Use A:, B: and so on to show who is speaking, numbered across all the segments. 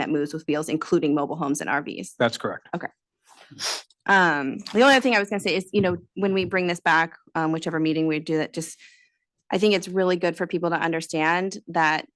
A: that moves with wheels, including mobile homes and RVs.
B: That's correct.
A: Um, the only other thing I was gonna say is, you know, when we bring this back, um, whichever meeting we do that, just, I think it's really good for people to understand that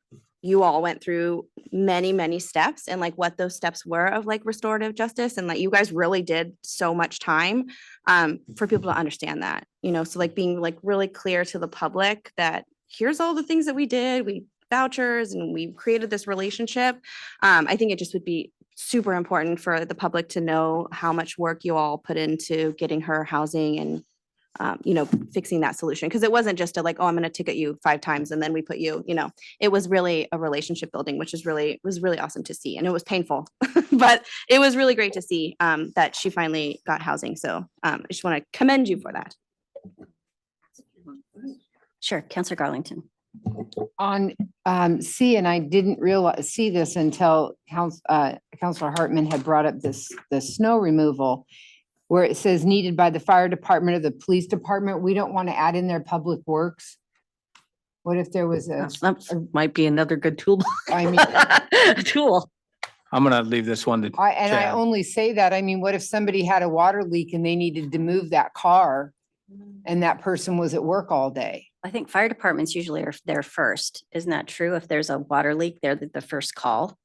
A: you all went through many, many steps and like what those steps were of like restorative justice and like you guys really did so much time um, for people to understand that, you know, so like being like really clear to the public that here's all the things that we did, we vouchers and we created this relationship. Um, I think it just would be super important for the public to know how much work you all put into getting her housing and, um, you know, fixing that solution. Because it wasn't just a like, oh, I'm going to ticket you five times and then we put you, you know, it was really a relationship building, which is really, was really awesome to see. And it was painful, but it was really great to see um, that she finally got housing. So um, I just want to commend you for that.
C: Sure, Counselor Garlington.
D: on um C, and I didn't realize, see this until Council, uh, Counselor Hartman had brought up this, the snow removal. Where it says needed by the fire department or the police department, we don't want to add in their public works. What if there was a,
C: That might be another good tool,
D: I mean,
C: tool.
B: I'm gonna leave this one to,
D: I, and I
B: Chad.
D: only say that, I mean, what if somebody had a water leak and they needed to move that car? And that person was at work all day?
C: I think fire departments usually are there first. Isn't that true? If there's a water leak, they're the, the first call.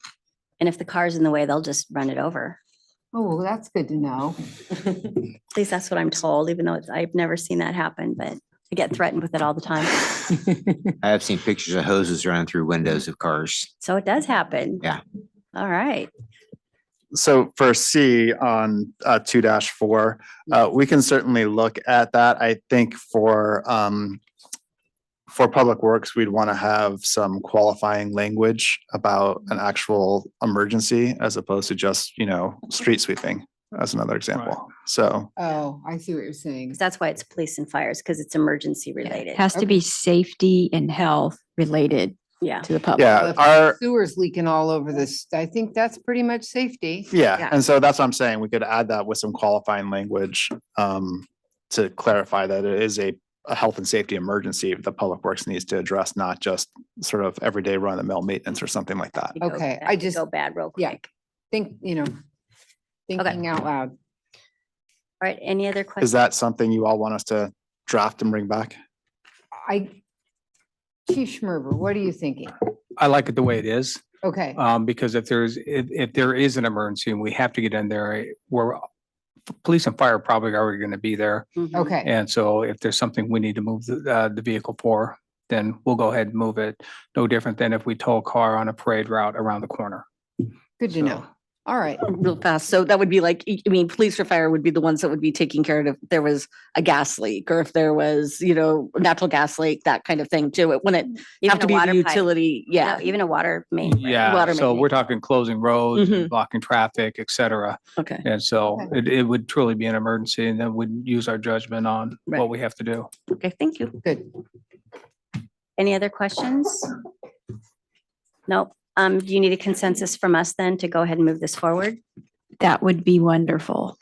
C: And if the car's in the way, they'll just run it over.
D: Oh, that's good to know.
C: At least that's what I'm told, even though it's- I've never seen that happen, but I get threatened with it all the time.
E: I have seen pictures of hoses running through windows of cars.
C: So it does happen.
E: Yeah.
C: All right.
F: So for C on uh, two four, uh, we can certainly look at that. I think for um. For Public Works, we'd want to have some qualifying language about an actual emergency as opposed to just, you know, street sweeping as another example. So.
D: Oh, I see what you're saying.
C: 'Cause that's why it's police and fires, because it's emergency related.
G: Has
D: Okay.
G: to be safety and health related
C: Yeah.
G: to the public.
F: Yeah,
D: If
F: our,
D: Sewers leaking all over this. I think that's pretty much safety.
F: yeah,
C: Yeah.
F: and so that's what I'm saying. We could add that with some qualifying language um to clarify that it is a a health and safety emergency that Public Works needs to address, not just sort of everyday run of the mill maintenance or something like that.
C: You go-
D: Okay,
C: that
D: I
C: could
D: just-
C: Go bad real
D: yeah.
C: quick.
D: Think, you know, thinking out loud.
C: All right, any other questions?
F: Is that something you all want us to draft and bring back?
D: I, Chief Schmerber, what are you thinking?
B: I like it the way it is.
D: Okay,
B: Um, because if there's, if, if there is an emergency and we have to get in there, I- we're, police and fire are probably already gonna be there.
C: Mhm.
D: okay.
B: And so if there's something we need to move the, uh, the vehicle for, then we'll go ahead and move it. No different than if we tow a car on a parade route around the corner.
D: Good to
B: So-
D: know. All right.
H: real fast. So that would be like, I mean, police or fire would be the ones that would be taking care of if there was a gas leak or if there was, you know, natural gas leak, that kind of thing too. It wouldn't
C: Even
H: have
C: a
H: to be
C: water
H: the
C: pipe.
H: utility.
C: No,
H: Yeah.
C: Oh, Even a water main. right?
B: Yeah,
H: Water
B: so
H: main.
B: we're talking closing roads, and
H: Mhm.
B: blocking traffic, et cetera.
H: Okay.
B: And so
D: Okay.
B: it, it would truly be an emergency and then we'd use our judgment on what
H: Right.
B: we have to do.
H: Okay. Thank you.
D: Good.
C: Any other questions? Nope. Um, do you need a consensus from us then to go ahead and move this forward?
G: That would be wonderful.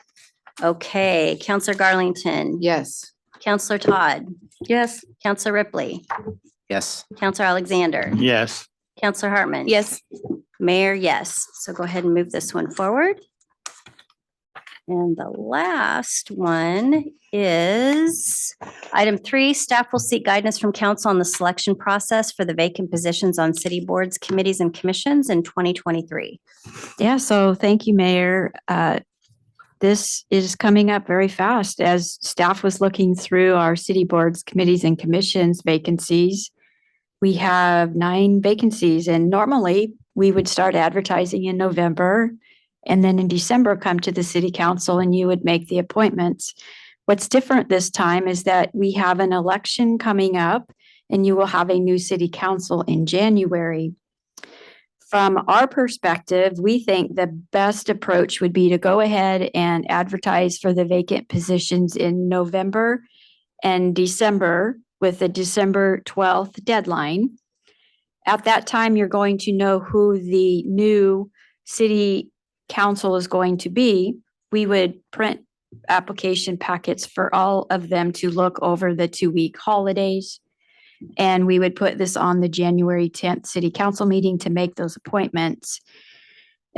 C: Okay, Counselor Garlington.
D: Yes.
C: Counselor Todd.
H: Yes.
C: Counselor Ripley.
E: Yes.
C: Counselor Alexander.
I: Yes.
C: Counselor Hartman.
A: Yes,
C: Mayor, yes. So go ahead and move this one forward. And the last one is item three, staff will seek guidance from council on the selection process for the vacant positions on city boards, committees, and commissions in 2023.
G: Yeah, so thank you, Mayor. Uh, This is coming up very fast as staff was looking through our city boards, committees and commissions vacancies. We have nine vacancies and normally we would start advertising in November. And then in December, come to the city council and you would make the appointments. What's different this time is that we have an election coming up and you will have a new city council in January from our perspective, we think the best approach would be to go ahead and advertise for the vacant positions in November and December with the December 12th deadline. At that time, you're going to know who the new city council is going to be. We would print application packets for all of them to look over the two-week holidays. And we would put this on the January tenth city council meeting to make those appointments.